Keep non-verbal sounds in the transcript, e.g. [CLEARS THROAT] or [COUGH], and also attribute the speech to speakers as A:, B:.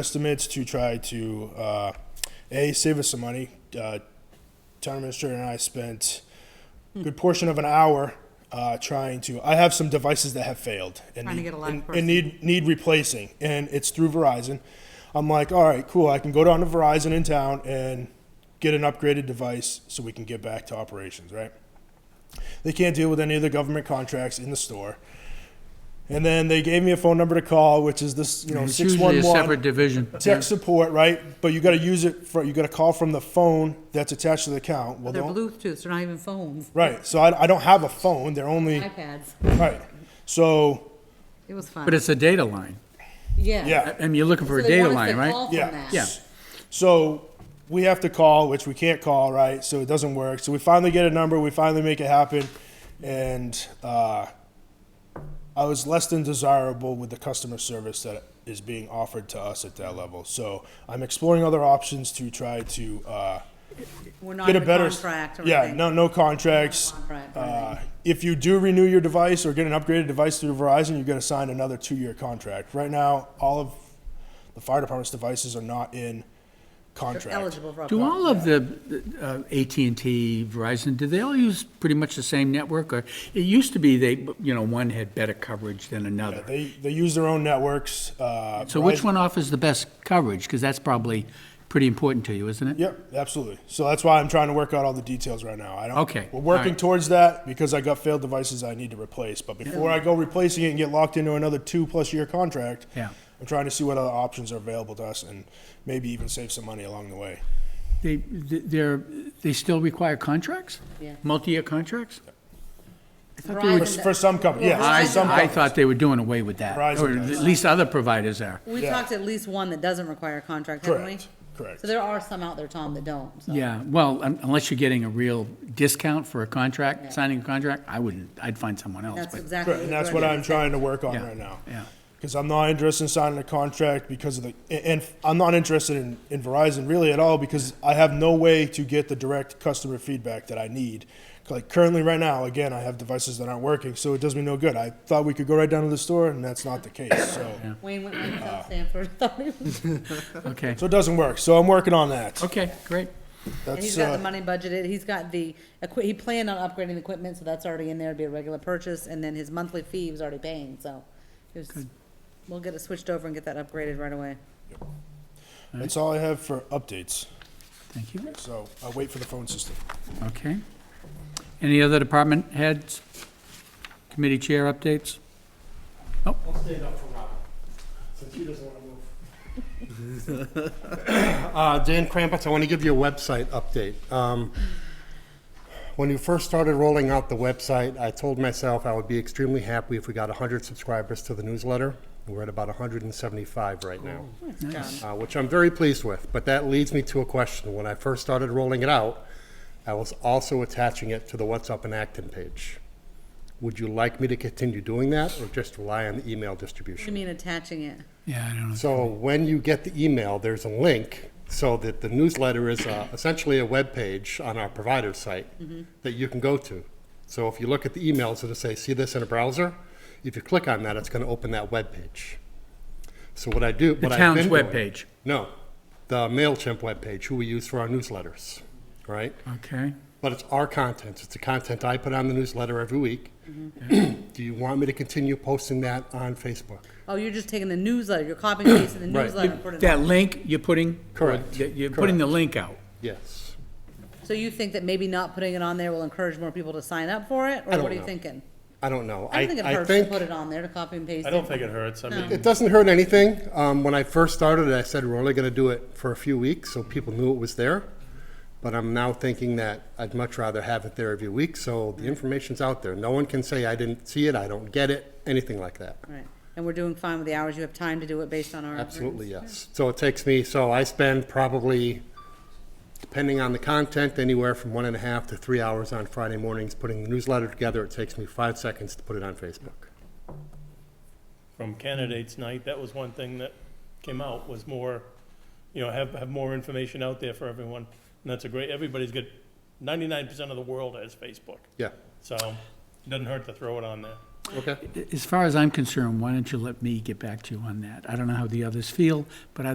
A: estimates to try to uh, a save us some money. Uh, town administrator and I spent
B: Hmm.
A: a good portion of an hour uh, trying to. I have some devices that have failed and
B: Trying to
A: need,
B: get a live
A: and,
B: person.
A: and need need replacing, and it's through Verizon. I'm like, all right, cool. I can go down to Verizon in town and get an upgraded device so we can get back to operations, right? They can't deal with any of the government contracts in the store. And then they gave me a phone number to call, which is this, you know,
C: It's
A: six
C: usually
A: one
C: a
A: one
C: separate division.
A: tech support, right? But you got to use it for you got to call from the phone that's attached to the account. Well,
B: They're
A: don't-
B: Bluetooth, they're not even phones,
A: right. So I, I don't have a phone. They're only
B: iPads.
A: right. So
B: It was fun.
C: But it's a data line.
B: Yeah.
A: yeah,
C: I mean, you're looking for a
B: So they
C: data
B: want us to
C: line, right?
B: call from
A: yeah,
B: that.
C: Yeah.
A: So we have to call, which we can't call, right? So it doesn't work. So we finally get a number. We finally make it happen, and uh, I was less than desirable with the customer service that is being offered to us at that level. So I'm exploring other options to try to. Uh,
B: We're not
A: get
B: in
A: a
B: a
A: better
B: contract or
A: yeah
B: anything.
A: no no contracts
B: No contract or
A: uh, if you do renew your device or get an upgraded device through verizon you're going to sign another two-year contract right now all of the fire department's devices are not in
B: They're
A: contract
B: eligible for. a
C: Do
B: phone.
C: all of the uh, AT&T, Verizon, do they all use pretty much the same network? Or it used to be they, you know, one had better coverage than another.
A: they they use their own networks uh,
C: So which
A: Verizon-
C: one offers the best coverage? Because that's probably pretty important to you, isn't it?
A: Yep, absolutely. So that's why I'm trying to work out all the details right now. I don't.
C: Okay,
A: We're working
C: alright.
A: towards that because I got failed devices I need to replace. But before I go replacing it and get locked into another two plus year contract,
C: Yeah.
A: I'm trying to see what other options are available to us and maybe even save some money along the way.
C: They, they're, they still require contracts?
B: Yeah.
C: Multi-year contracts? I thought they
B: Verizon
C: were-
A: For, for some companies, yes.
C: I,
A: for some
C: I
A: companies.
C: thought they were doing away with that,
A: Verizon
C: or
A: does.
C: at least other providers are.
B: We
A: Yeah.
B: talked to at least one that doesn't require a contract, haven't we?
A: Correct, correct.
B: So there are some out there, Tom, that don't, so.
C: Yeah, well, un- unless you're getting a real discount for a contract, signing a contract, I wouldn't, I'd find someone else,
B: That's
C: but,
B: exactly.
A: Correct, and that's
B: we're
A: what
B: doing.
A: I'm trying to work on
C: Yeah,
A: right now.
C: yeah.
A: Because I'm not interested in signing a contract because of the, and- and I'm not interested in, in Verizon really at all because I have no way to get the direct customer feedback that I need. Like currently, right now, again, I have devices that aren't working, so it does me no good. I thought we could go right down to the store, and that's not the case. So,
B: Wayne went right
A: Ah.
B: to Stanford. [LAUGHS] And
C: okay.
A: so it doesn't work. So I'm working on that.
C: Okay, great.
A: [LAUGHS] That's
B: he's got
A: uh,
B: the money budgeted, he's got the, equi- he planned on upgrading the equipment, so that's already in there, it'd be a regular purchase, and then his monthly fee he was already paying, so. it was- We'll get it switched over and get that upgraded right away.
A: that's all I have for updates.
C: Thank you.
A: So I'll wait for the phone system.
C: Okay. Any other department heads? Committee chair updates?
D: I'll stand up for Robin, since he doesn't want to move. Uh, Dan Krampus, I want to give you a website update. Um, When you first started rolling out the website, I told myself I would be extremely happy if we got 100 subscribers to the newsletter. We're at about 175 right now uh, which I'm very pleased with. But that leads me to a question. When I first started rolling it out, I was also attaching it to the What's Up in Acton page. Would you like me to continue doing that or just rely on the email distribution?
B: You mean attaching it?
C: Yeah, I don't know.
D: So when you get the email, there's a link so that the newsletter is uh, essentially a web page on our provider site that you can go to. So if you look at the emails, it'll say, see this in a browser. If you click on that, it's going to open that web page. So what I do,
C: The
D: what
C: town's
D: I've been
C: web
D: doing-
C: page.
D: No, the MailChimp webpage, who we use for our newsletters, right?
C: Okay.
D: But it's our content. It's the content I put on the newsletter every week. [CLEARS THROAT] Do you want me to continue posting that on Facebook?
B: Oh, you're just taking the newsletter, you're copying and pasting the
D: Right.
B: newsletter. and putting it
C: That
B: on.
C: link you're putting?
D: Correct.
C: You're putting the link out.
D: Yes.
B: So you think that maybe not putting it on there will encourage more people to sign up for it, or
D: don't
B: what are you
D: know.
B: thinking?
D: I don't know.
B: I don't think it hurts to put it on there to copy and paste
E: I
B: it.
E: don't think it hurts. I mean,
D: It doesn't hurt anything. Um, when I first started, I said we're only going to do it for a few weeks so people knew it was there. But I'm now thinking that I'd much rather have it there every week so the information's out there. No one can say I didn't see it, I don't get it, anything like that.
B: Right, and we're doing fine with the hours you have time to do it based on our.
D: Absolutely, yes. So it takes me, so I spend probably, depending on the content, anywhere from one and a half to three hours on Friday mornings putting the newsletter together. It takes me five seconds to put it on Facebook.
E: from candidates night, that was one thing that came out was more, you know, have, have more information out there for everyone. And that's a great, everybody's got, ninety-nine percent of the world has Facebook.
D: Yeah,
E: So it doesn't hurt to throw it on there.
D: okay.
C: As far as I'm concerned, why don't you let me get back to you on that? I don't know how the others feel, but I